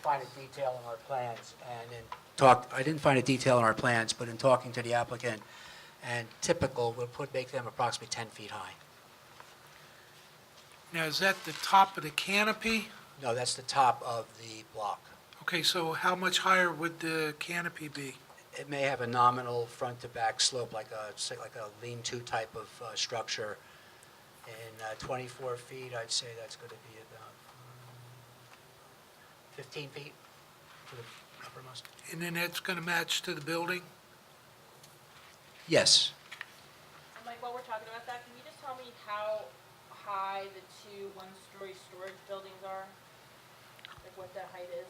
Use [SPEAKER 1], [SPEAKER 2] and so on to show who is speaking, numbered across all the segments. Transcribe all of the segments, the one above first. [SPEAKER 1] find a detail in our plans, and in talk, I didn't find a detail in our plans, but in talking to the applicant, and typical, we'll put, make them approximately 10 feet high.
[SPEAKER 2] Now, is that the top of the canopy?
[SPEAKER 1] No, that's the top of the block.
[SPEAKER 2] Okay, so how much higher would the canopy be?
[SPEAKER 1] It may have a nominal front-to-back slope, like a, say, like a lean-to type of uh, structure. And uh, 24 feet, I'd say that's going to be about mm, 15 feet for the uppermost.
[SPEAKER 2] And then that's going to match to the building?
[SPEAKER 1] Yes.
[SPEAKER 3] And Mike, while we're talking about that, can you just tell me how high the two one-story storage buildings are? Like what that height is?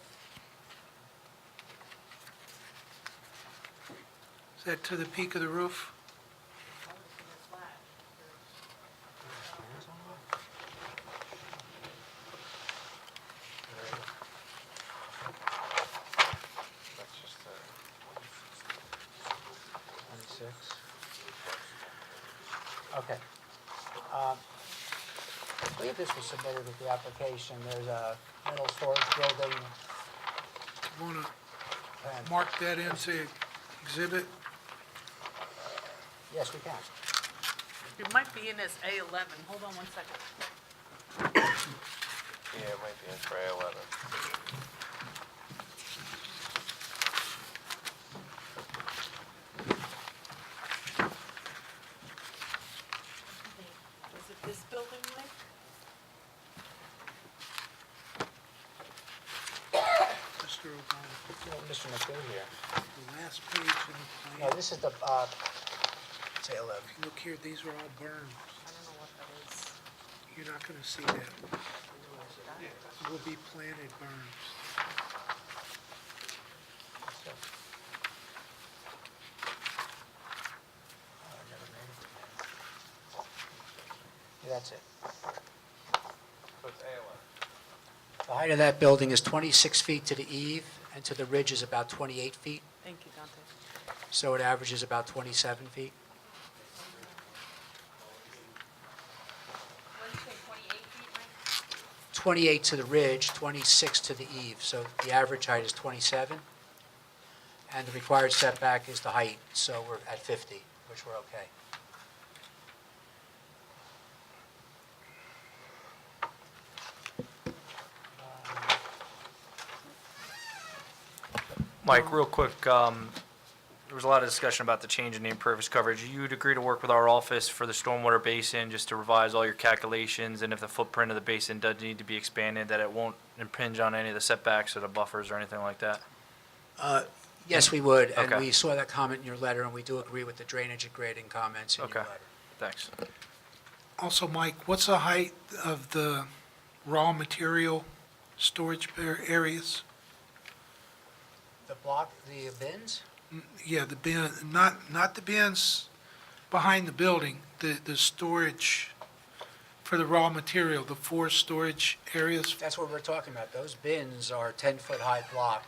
[SPEAKER 2] Is that to the peak of the roof?
[SPEAKER 3] I'm just gonna flash.
[SPEAKER 1] Okay. Um, I believe this was submitted with the application. There's a metal storage building.
[SPEAKER 2] Want
[SPEAKER 1] and-
[SPEAKER 2] to mark that into exhibit?
[SPEAKER 1] Yes, we can.
[SPEAKER 4] It might be in as A eleven, hold on one second.
[SPEAKER 5] Yeah, it might be in for eleven.
[SPEAKER 4] Is it this building, Mike?
[SPEAKER 2] Mr. O'Connor,
[SPEAKER 1] You know, Mr. McGill here.
[SPEAKER 2] the last page in the
[SPEAKER 1] No,
[SPEAKER 2] plan,
[SPEAKER 1] this is the, uh, say 11.
[SPEAKER 2] if you look here, these are all burned.
[SPEAKER 4] I don't know what that is.
[SPEAKER 2] You're not going to see that. Will be planted burns.
[SPEAKER 1] So- Oh, I never made it. Yeah, That's it.
[SPEAKER 5] So it's A eleven.
[SPEAKER 1] The height of that building is 26 feet to the eve, and to the ridge is about 28 feet,
[SPEAKER 4] Thank you, Dante.
[SPEAKER 1] so it averages about 27 feet.
[SPEAKER 3] What did you say, twenty-eight feet, Mike?
[SPEAKER 1] 28 to the ridge, 26 to the eve, so the average height is 27. And the required setback is the height, so we're at 50, which we're okay.
[SPEAKER 6] Mike, real quick, um, there was a lot of discussion about the change in name purpose coverage. You'd agree to work with our office for the stormwater basin, just to revise all your calculations, and if the footprint of the basin does need to be expanded, that it won't impinge on any of the setbacks or the buffers or anything like that?
[SPEAKER 1] Yes, we would, and
[SPEAKER 6] Okay.
[SPEAKER 1] we saw that comment in your letter, and we do agree with the drainage and grading comments in your
[SPEAKER 6] Okay.
[SPEAKER 1] letter.
[SPEAKER 6] Thanks.
[SPEAKER 2] Also, Mike, what's the height of the raw material storage par- areas?
[SPEAKER 1] The block, the bins?
[SPEAKER 2] Yeah, the bin, not, not the bins behind the building, the, the storage for the raw material, the four storage areas.
[SPEAKER 1] That's what we're talking about. Those bins are 10-foot-high block,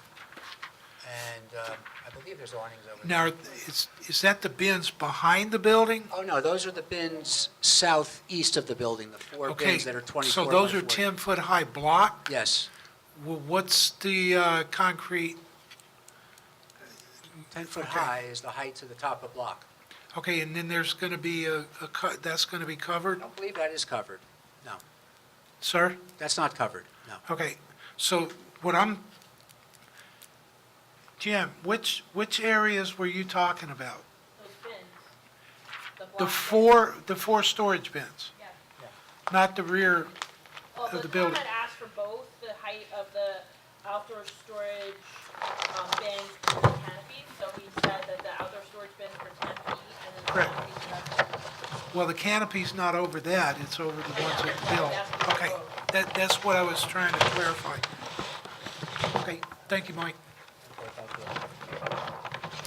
[SPEAKER 1] and um, I believe there's awnings over there.
[SPEAKER 2] Now, is, is that the bins behind the building?
[SPEAKER 1] Oh, no, those are the bins southeast of the building, the four
[SPEAKER 2] Okay,
[SPEAKER 1] bins that are 24
[SPEAKER 2] So those
[SPEAKER 1] by
[SPEAKER 2] are
[SPEAKER 1] 40.
[SPEAKER 2] 10-foot-high block?
[SPEAKER 1] Yes,
[SPEAKER 2] Well, what's the uh, concrete? Okay.
[SPEAKER 1] ten-foot-high is the height to the top of block.
[SPEAKER 2] Okay, and then there's going to be a, a co- that's going to be covered,
[SPEAKER 1] I don't believe that is covered. No,
[SPEAKER 2] sir?
[SPEAKER 1] that's not covered, no.
[SPEAKER 2] Okay, so what I'm, Jim, which, which areas were you talking about?
[SPEAKER 3] Those bins?
[SPEAKER 2] The
[SPEAKER 3] block
[SPEAKER 2] four, the four storage bins,
[SPEAKER 3] bins? Yeah.
[SPEAKER 2] not the rear,
[SPEAKER 3] Well,
[SPEAKER 2] of
[SPEAKER 3] the
[SPEAKER 2] the
[SPEAKER 3] town
[SPEAKER 2] building.
[SPEAKER 3] had asked for both the height of the outdoor storage um, bins and the canopies, so we said that the outdoor storage bins were ten feet and then the
[SPEAKER 2] Correct.
[SPEAKER 3] canopies were ten feet.
[SPEAKER 2] well, the canopy's not over that, it's over the ones at the building. Okay, that, that's what I was trying to clarify. Okay, thank you, Mike.
[SPEAKER 1] Okay, thank you.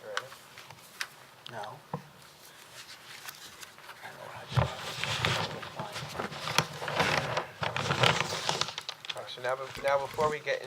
[SPEAKER 5] You ready?
[SPEAKER 1] No. I don't know how to-
[SPEAKER 5] All right, So now, be- now before we get